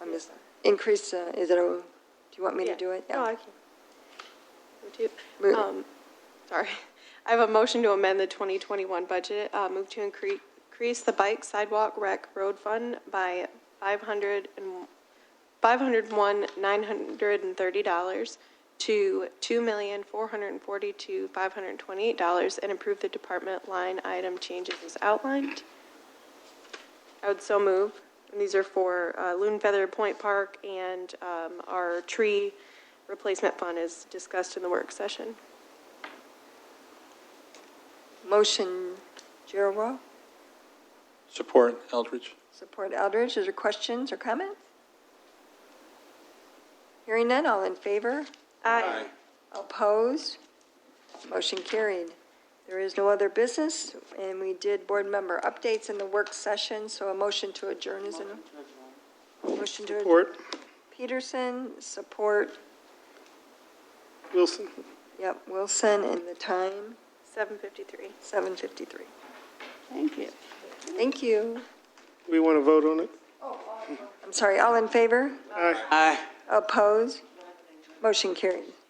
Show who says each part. Speaker 1: I'm just, increase, uh, is it, o- do you want me to
Speaker 2: Yeah.
Speaker 1: do it?
Speaker 2: No, I can. Move to-
Speaker 1: Move-
Speaker 2: um, Sorry. I have a motion to amend the 2021 budget. Uh, Move to incre- increase the bike sidewalk rec road fund by 500 and, $501,930 to $2,442,528 and improve the department line item changes as outlined. I would so move. And these are for uh, Loon Feather Point Park and um, our tree replacement fund is discussed in the work session.
Speaker 1: Motion Gerald,
Speaker 3: Support Eldridge.
Speaker 1: support Eldridge. Is there questions or comments? Hearing none, all in favor?
Speaker 2: Aye.
Speaker 1: Opposed? Motion carried. There is no other business, and we did board member updates in the work session, so a motion to adjourn is in. Motion to adjourn.
Speaker 4: Support.
Speaker 1: Peterson, support,
Speaker 4: Wilson.
Speaker 1: yep, Wilson, and the time,
Speaker 2: 7:53.
Speaker 1: 7:53. Thank you. Thank you.
Speaker 4: Do we want to vote on it?
Speaker 1: I'm sorry, all in favor?
Speaker 4: Aye.
Speaker 1: Opposed? Motion carried.